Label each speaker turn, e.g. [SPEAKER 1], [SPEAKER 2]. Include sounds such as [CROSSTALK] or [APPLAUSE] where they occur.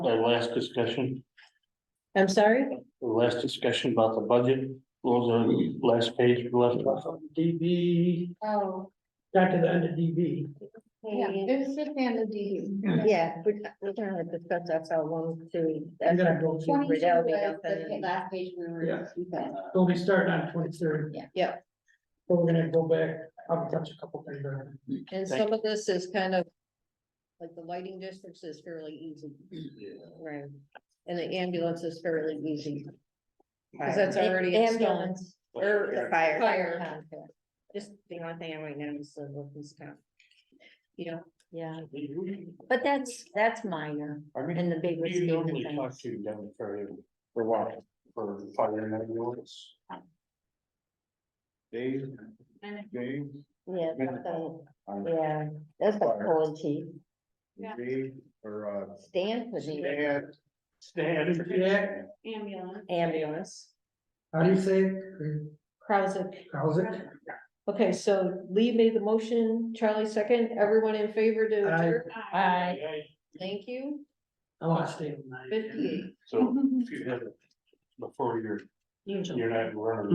[SPEAKER 1] our last discussion,
[SPEAKER 2] I'm sorry?
[SPEAKER 1] the last discussion about the budget, was the last page we left off.
[SPEAKER 3] DB,
[SPEAKER 4] Oh,
[SPEAKER 3] back to the end of DB.
[SPEAKER 4] yeah, it's just and the DD.
[SPEAKER 2] Yeah, we're, we're gonna discuss that's how one, two.
[SPEAKER 3] I'm gonna go through
[SPEAKER 4] Twenty-two was
[SPEAKER 2] Riddell, we
[SPEAKER 4] the
[SPEAKER 2] have
[SPEAKER 4] pa-
[SPEAKER 2] the-
[SPEAKER 4] last page we were.
[SPEAKER 3] Yeah.
[SPEAKER 4] okay.
[SPEAKER 3] We'll be starting on twenty-third.
[SPEAKER 4] Yeah.
[SPEAKER 2] Yeah.
[SPEAKER 3] But we're gonna go back, I'll touch a couple things on
[SPEAKER 2] And some of this is kind of. Like the lighting districts is fairly easy. Right. And the ambulance is fairly easy. Cause that's already. installed.
[SPEAKER 5] Ambulance or the fire.
[SPEAKER 2] Fire.
[SPEAKER 5] Just the only thing I'm right now is the workers' comp. You know,
[SPEAKER 2] Yeah,
[SPEAKER 5] but that's, that's minor
[SPEAKER 1] I mean,
[SPEAKER 5] in the bigger
[SPEAKER 1] you
[SPEAKER 5] scheme of
[SPEAKER 1] normally talk
[SPEAKER 5] things.
[SPEAKER 1] to down the ferry for what, for fire and ambulance? Dave, Dave,
[SPEAKER 5] Yeah,
[SPEAKER 1] Minute.
[SPEAKER 5] something-
[SPEAKER 1] I'm
[SPEAKER 5] yeah, that's like
[SPEAKER 1] Fire.
[SPEAKER 5] pulling teeth.
[SPEAKER 4] Yeah.
[SPEAKER 1] Dave, or uh,
[SPEAKER 5] Stand for the
[SPEAKER 1] Stan. Stan.
[SPEAKER 3] Yeah.
[SPEAKER 4] Ambulance.
[SPEAKER 5] ambulance.
[SPEAKER 3] How do you say it?
[SPEAKER 2] Krausik.
[SPEAKER 3] How's it?
[SPEAKER 2] Okay, so Lee made the motion, Charlie second, everyone in favor to
[SPEAKER 3] Aye.
[SPEAKER 2] adjourn?
[SPEAKER 5] Aye.
[SPEAKER 2] Thank you.
[SPEAKER 3] I want to stay with mine.
[SPEAKER 4] [LAUGHS]
[SPEAKER 2] Fifty.
[SPEAKER 1] So, if you have, before you're, you're not running